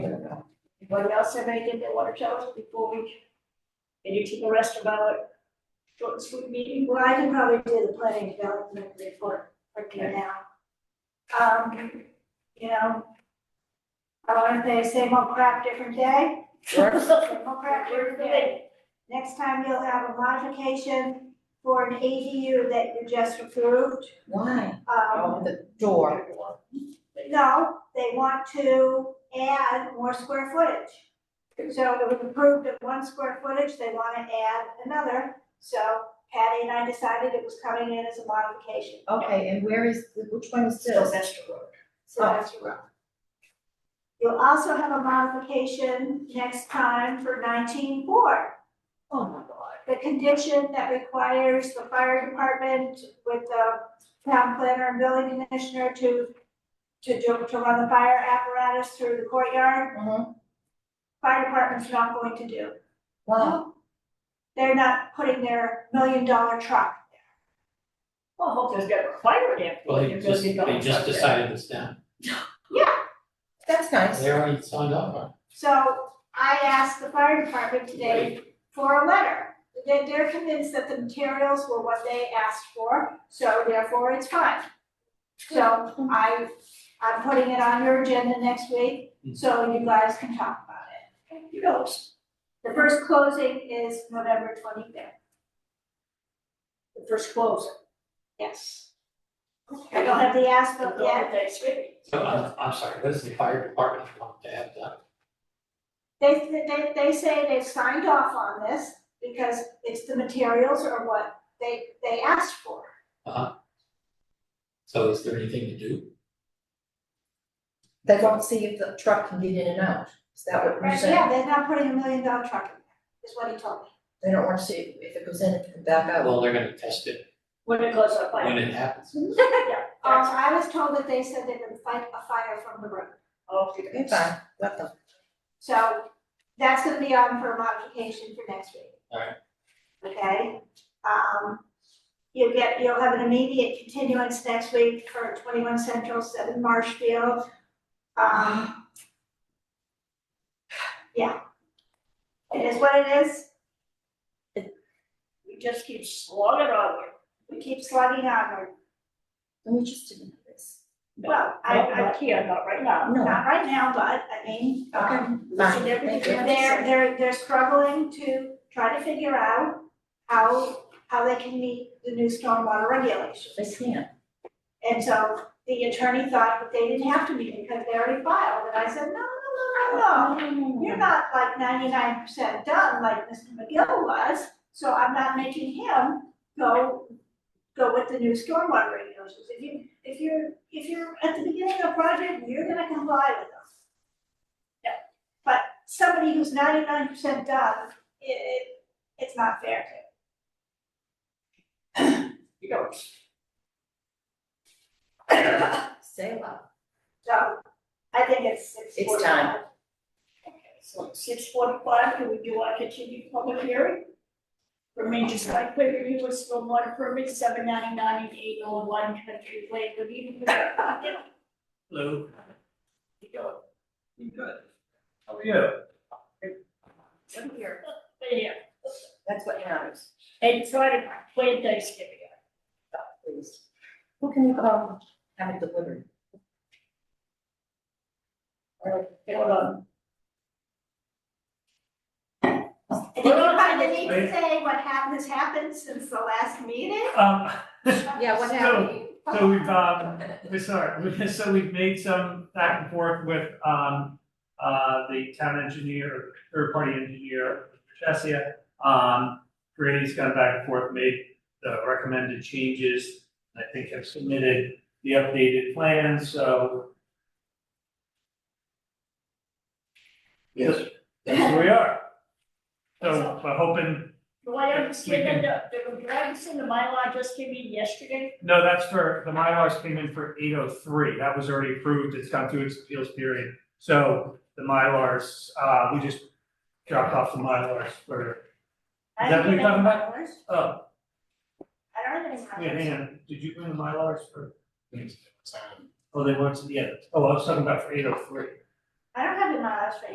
Anybody else have anything they want to tell us before we, anything the rest of our short and sweet meeting? Well, I can probably do the planning development report for you Okay. now. Um, you know, I want to say same old crap, different day. Works. Same old crap, Works different for day. me. Next time you'll have a modification for an ADU that you just approved. Why? Um, Oh, the door. no, they want to add more square footage. So it was approved at one square footage, they want to add another. So Patty and I decided it was coming in as a modification. Okay, and where is, which one is this? Sylvester Road. So that's your rough. You'll also have a modification next time for nineteen four, Oh, my God. the condition that requires the fire department with the town planner and building commissioner to to do, to run the fire apparatus through the courtyard, Mhm. fire department's not going to do. Wow. They're not putting their million dollar truck Well, I hope there's got a fire there. Well, they There's just, gonna be they just fire. decided it's down. That's nice. They already signed up on So I asked the fire department today for a letter. They- They're convinced that the materials were what they asked for, so therefore it's fine. So I, I'm putting it on your agenda next week, so you guys can talk about it. You know, it's The first closing is November twenty-fifth, the first close. yes. I don't have the Don't asphalt know yet. if that's ready. it. So I'm, I'm sorry, this is the fire department want to have done. They, they, they say they've signed off on this because it's the materials or what they, they asked for. So is there anything to do? They don't see if the truck can get in and out. Is that what you're Right, saying? yeah, they're not putting a million dollar truck in there, is what he told me. They don't want to see if it goes in and can back out. Well, they're gonna test it When it goes up, when I, it happens. Um, I was told that they said they would fight a fire from the road. oh, Okay, fine, let them. So that's gonna be on for modification for next week. Alright. Okay, um, you'll get, you'll have an immediate continuance next week for twenty-one Central, seven Marshfield. Um. Yeah. It is what it is, we just keep slogging on it. we keep slugging onward, Let me just do this. well, I, Not- I, Not here, not right now. No, not right now, but I mean, um, okay, Listen, fine. everything Thank you. They're, they're, they're struggling to try to figure out how, how they can meet the new stormwater regulations. They can. And so the attorney thought that they didn't have to meet because they already filed, and I said, no, no, no, no, Oh. no. You're not like ninety-nine percent done like Mr. McGill was, so I'm not making him go, go with the new stormwater regulations. If you, if you're, if you're at the beginning of a project, you're gonna comply with them. Yeah, But somebody who's ninety-nine percent done, it, it, it's not fair to. You know, it's- Say a lot. So I think it's six forty-five. It's time. okay, so six forty-five, do we do our continued public hearing? For major site plan review with stormwater permit, seven ninety-nine and eight oh one Country Way, good evening. Hello. You doing? I'm good. How are you? I'm here. Yeah, That's what matters. and try to plan Thanksgiving. Please. Who can you call? Have it delivered. Or, hold on, Did you kind of need to say what happened has happened since the last meeting? Um, Yeah, what happened? so we've, um, we sorry, so we've made some back and forth with, um, uh, the town engineer, third party engineer, Chesia. Um, Grady's gone back and forth, made the recommended changes, I think have submitted the updated plans, so. Yes, that's where we are. So we're hoping do I understand that, the, the, Robinson, the Mylar just came in yesterday? No, that's for, the Mylars came in for eight oh three, that was already approved, it's gone through its appeals period. So the Mylars, uh, we just dropped off the Mylars for, I Is that what you're talking about? don't even oh, know how wait, it hang is. on, did you bring the Mylars for? Oh, they went to the end, oh, I was talking about for eight oh three. I don't have the miles right